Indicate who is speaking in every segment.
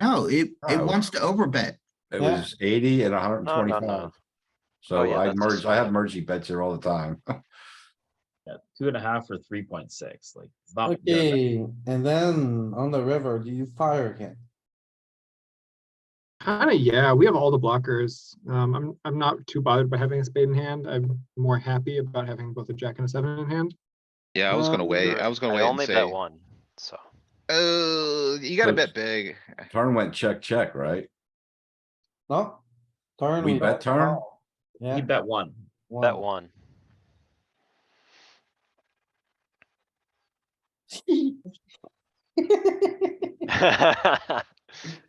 Speaker 1: No, it, it
Speaker 2: Oh.
Speaker 1: wants to overbet.
Speaker 2: It
Speaker 3: Yeah.
Speaker 2: was eighty and hundred and
Speaker 4: No, no, no.
Speaker 2: twenty-five.
Speaker 4: Oh,
Speaker 2: So
Speaker 4: yeah,
Speaker 2: I
Speaker 4: that's a
Speaker 2: merged, I
Speaker 4: shame.
Speaker 2: have mergey bets here all the time.
Speaker 5: Yeah, two and a half or three point six, like, it's not. you're not-
Speaker 3: Okay, and then on the river, do you fire again?
Speaker 6: Kinda, yeah, we have all the blockers. Um, I'm, I'm not too bothered by having a spade in hand. I'm more happy about having both a jack and a seven in hand.
Speaker 7: Yeah, I was gonna
Speaker 6: Um,
Speaker 7: wait, I was gonna
Speaker 4: I
Speaker 7: wait and
Speaker 4: only bet
Speaker 7: say,
Speaker 4: one, so.
Speaker 7: oh, you gotta
Speaker 2: Close.
Speaker 7: bet big.
Speaker 2: Turn went check, check, right?
Speaker 3: No? Turn.
Speaker 2: We
Speaker 3: don't
Speaker 2: bet turn?
Speaker 3: call.
Speaker 5: You
Speaker 3: Yeah.
Speaker 5: bet one.
Speaker 4: Bet one.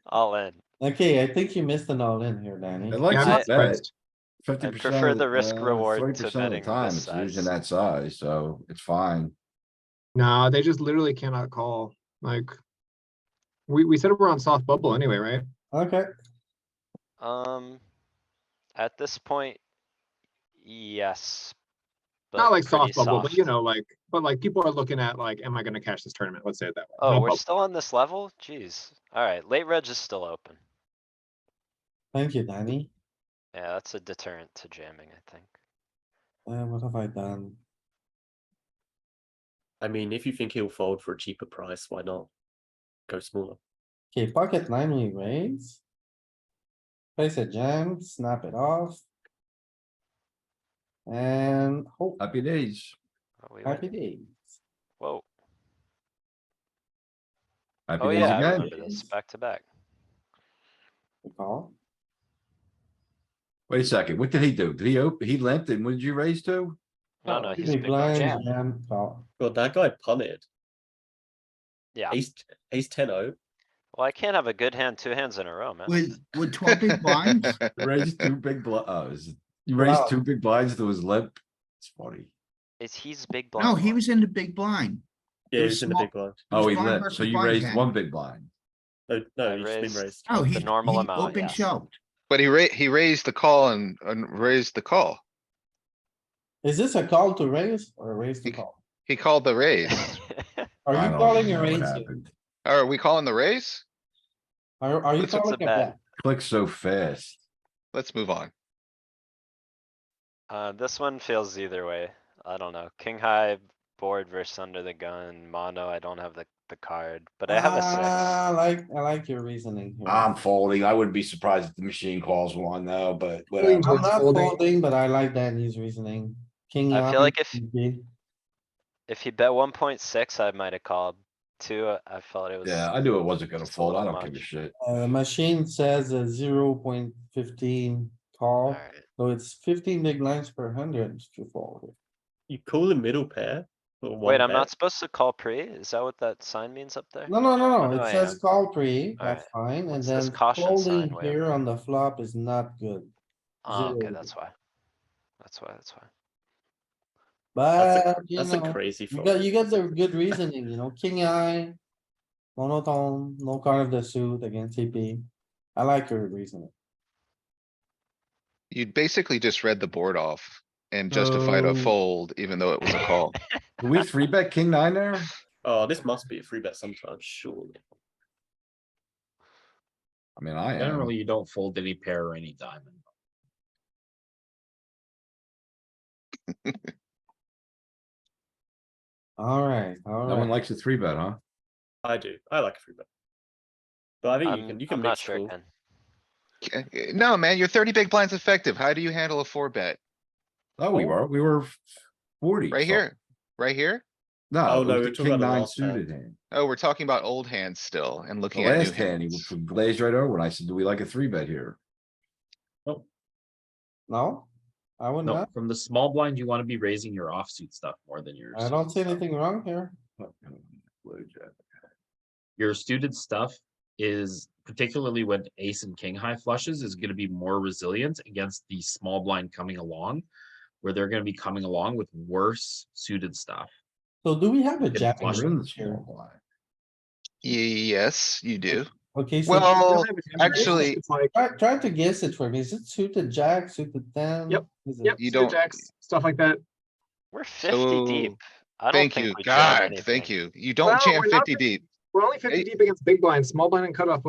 Speaker 4: All in.
Speaker 3: Okay, I think you missed an all in here, Danny.
Speaker 2: It
Speaker 6: Yeah, I'm not
Speaker 2: likes to bet
Speaker 6: surprised.
Speaker 2: fifty percent. uh,
Speaker 4: prefer the risk reward to betting this
Speaker 2: Time it's using
Speaker 4: size.
Speaker 2: that size, so it's fine.
Speaker 6: Nah, they just literally cannot call, like. We, we said we're on soft bubble anyway, right?
Speaker 3: Okay,
Speaker 4: Um, at this point, yes. but
Speaker 6: Not like
Speaker 4: pretty
Speaker 6: soft bubble, but you
Speaker 4: soft.
Speaker 6: know, like, but like people are looking at like, am I gonna cash this tournament? Let's say it that way.
Speaker 4: Oh,
Speaker 6: Not
Speaker 4: we're
Speaker 6: bubble.
Speaker 4: still on this level? Jeez. Alright, late reg is still open.
Speaker 3: thank you, Danny.
Speaker 4: Yeah, that's a deterrent to jamming, I think.
Speaker 3: Uh, what have I done?
Speaker 8: I mean, if you think he'll fold for a cheaper price, why not go smaller?
Speaker 3: Okay, pocket nine, we raise. Place a jam, snap it off. And, oh,
Speaker 2: Happy days.
Speaker 4: Oh, we
Speaker 3: happy
Speaker 4: went-
Speaker 3: days.
Speaker 4: Whoa,
Speaker 2: Happy
Speaker 4: oh
Speaker 2: days
Speaker 4: yeah, I
Speaker 2: again.
Speaker 4: remember this, back to back.
Speaker 3: We call.
Speaker 2: Wait a second, what did he do? Did he open, he limped and what did you raise to?
Speaker 4: No,
Speaker 8: Oh,
Speaker 4: no, he's
Speaker 3: Big
Speaker 4: big blind
Speaker 3: blind,
Speaker 4: jam.
Speaker 3: jam, call.
Speaker 8: God, that guy punted.
Speaker 4: Yeah,
Speaker 8: Ace, ace ten oh.
Speaker 4: well, I can't have a good hand, two hands in a row, man.
Speaker 1: With, with twelve big blinds,
Speaker 2: Raised two big blinds. oh, is it- you raised
Speaker 3: Wow.
Speaker 2: two big blinds to his limp. It's funny.
Speaker 4: Is he's big blind?
Speaker 1: no, he
Speaker 4: blind.
Speaker 1: was in the big blind.
Speaker 8: Yeah,
Speaker 1: You're
Speaker 8: he's in the
Speaker 1: small-
Speaker 8: big blind.
Speaker 2: Oh, he
Speaker 1: blind
Speaker 2: limped,
Speaker 1: versus
Speaker 2: so you
Speaker 1: blind
Speaker 2: raised
Speaker 1: hand.
Speaker 2: one big blind.
Speaker 8: No,
Speaker 4: I
Speaker 8: no, he's been
Speaker 4: raised-
Speaker 8: raised.
Speaker 1: Oh,
Speaker 4: the
Speaker 1: he, he
Speaker 4: normal amount,
Speaker 1: open
Speaker 4: yes.
Speaker 1: shoved.
Speaker 7: But he ra- he raised the call and, and raised the call.
Speaker 3: Is this a call to raise or a raise to
Speaker 7: Bec-
Speaker 3: call?
Speaker 7: He called the raise.
Speaker 3: Are
Speaker 2: I
Speaker 3: you
Speaker 2: don't
Speaker 3: calling
Speaker 2: know
Speaker 3: a
Speaker 2: what
Speaker 3: raise? here?
Speaker 2: happened.
Speaker 7: Are we calling the raise?
Speaker 3: Are, are you
Speaker 4: It's- it's
Speaker 3: calling
Speaker 4: a
Speaker 3: a bet?
Speaker 4: bet.
Speaker 2: Click so fast.
Speaker 7: Let's move on.
Speaker 4: Uh, this one feels either way. I don't know. King high board versus under the gun, mono, I don't have the, the card, but I have a
Speaker 3: Ah, I
Speaker 4: six.
Speaker 3: like, I like your reasoning here.
Speaker 2: I'm folding. I wouldn't be surprised if the machine calls one though, but
Speaker 6: Queen
Speaker 2: whatever.
Speaker 3: I'm
Speaker 6: towards
Speaker 3: not
Speaker 6: folding.
Speaker 3: folding, but I like Danny's reasoning. King.
Speaker 4: I feel
Speaker 3: nine,
Speaker 4: like if-
Speaker 3: king big.
Speaker 4: If he bet one point six, I might have called. Two, uh, I felt it was.
Speaker 2: Yeah, I knew it wasn't gonna
Speaker 4: Just a
Speaker 2: fold. I
Speaker 4: little
Speaker 2: don't give a
Speaker 4: much.
Speaker 2: shit.
Speaker 3: Uh, machine says a zero point fifteen call,
Speaker 4: Alright,
Speaker 3: so it's fifteen big lines per hundred if you fold.
Speaker 8: You call a middle pair. or one
Speaker 4: wait, I'm
Speaker 8: bet.
Speaker 4: not supposed to call pre? Is that what that sign means up there?
Speaker 3: No, no, no,
Speaker 4: Oh,
Speaker 3: no, it
Speaker 4: yeah.
Speaker 3: says call three, that's
Speaker 4: Alright.
Speaker 3: fine, and
Speaker 4: What's
Speaker 3: then
Speaker 4: this caution
Speaker 3: folding
Speaker 4: sign way up
Speaker 3: here
Speaker 4: there?
Speaker 3: on the flop is not good.
Speaker 4: Oh, okay,
Speaker 3: zero.
Speaker 4: that's why. That's why, that's why.
Speaker 8: That's
Speaker 3: But,
Speaker 8: a,
Speaker 3: you
Speaker 8: that's a
Speaker 3: know,
Speaker 8: crazy
Speaker 3: you
Speaker 8: fold.
Speaker 3: got, you got the good reasoning, you know, king eye. Monotone, no card of the suit against CP. I like your reasoning.
Speaker 7: You basically just read the board off and justified
Speaker 2: Oh.
Speaker 7: a fold, even though it was a call.
Speaker 2: Can we three bet king nine there?
Speaker 8: Oh, this must be a free bet sometimes, surely.
Speaker 2: I mean, I am.
Speaker 5: Generally, you don't fold any pair or any diamond.
Speaker 3: Alright,
Speaker 2: No one
Speaker 3: alright.
Speaker 2: likes a three bet, huh?
Speaker 8: I do. I like a free bet. But I think you
Speaker 4: I'm,
Speaker 8: can you can
Speaker 4: I'm not
Speaker 8: mix
Speaker 4: sure,
Speaker 8: call.
Speaker 4: Ken.
Speaker 7: Okay, No, man, you're thirty big blinds effective. How do you handle a four bet?
Speaker 2: Oh, we were, we were forty.
Speaker 7: Right
Speaker 2: something.
Speaker 7: here, right here?
Speaker 2: No,
Speaker 8: Oh,
Speaker 2: it
Speaker 8: no,
Speaker 2: was
Speaker 8: we're
Speaker 2: the
Speaker 8: talking
Speaker 2: king
Speaker 8: about the
Speaker 2: nine
Speaker 8: last hand.
Speaker 2: suited hand.
Speaker 7: Oh, we're talking about old hands still and
Speaker 2: The
Speaker 7: looking at new
Speaker 2: last hand, he
Speaker 7: hands.
Speaker 2: glazed right over. And I said, do we like a three bet here?
Speaker 3: No? I would
Speaker 5: No,
Speaker 3: not,
Speaker 5: from the small blind, you wanna be raising your offsuit stuff more than your.
Speaker 3: I don't
Speaker 5: suited
Speaker 3: see
Speaker 5: stuff.
Speaker 3: anything wrong here.
Speaker 5: Your suited stuff is particularly when ace and king high flushes is gonna be more resilient against the small blind coming along. Where they're gonna be coming along with worse suited stuff.
Speaker 3: So do we have a
Speaker 5: Get
Speaker 3: jack?
Speaker 2: We're
Speaker 5: flush
Speaker 2: in
Speaker 3: in
Speaker 2: the
Speaker 3: this here?
Speaker 2: small blind.
Speaker 7: Yes, you do.
Speaker 3: Okay,
Speaker 6: um
Speaker 3: so
Speaker 7: Well,
Speaker 6: It's
Speaker 7: actually,
Speaker 6: just like,
Speaker 3: try, try to guess it for me. Is it suited jack, suited ten?
Speaker 6: Yep,
Speaker 3: Is it-
Speaker 6: yep,
Speaker 7: You
Speaker 6: suited
Speaker 7: don't-
Speaker 6: jacks, stuff like that.
Speaker 4: We're fifty deep. I don't
Speaker 7: thank
Speaker 4: think
Speaker 7: you,
Speaker 4: we jammed
Speaker 7: God,
Speaker 4: anything.
Speaker 7: thank you. You don't
Speaker 6: No,
Speaker 7: jam
Speaker 6: we're not
Speaker 7: fifty deep.
Speaker 6: We're only fifty
Speaker 7: Eight-
Speaker 6: deep against big blind, small blind and cutoff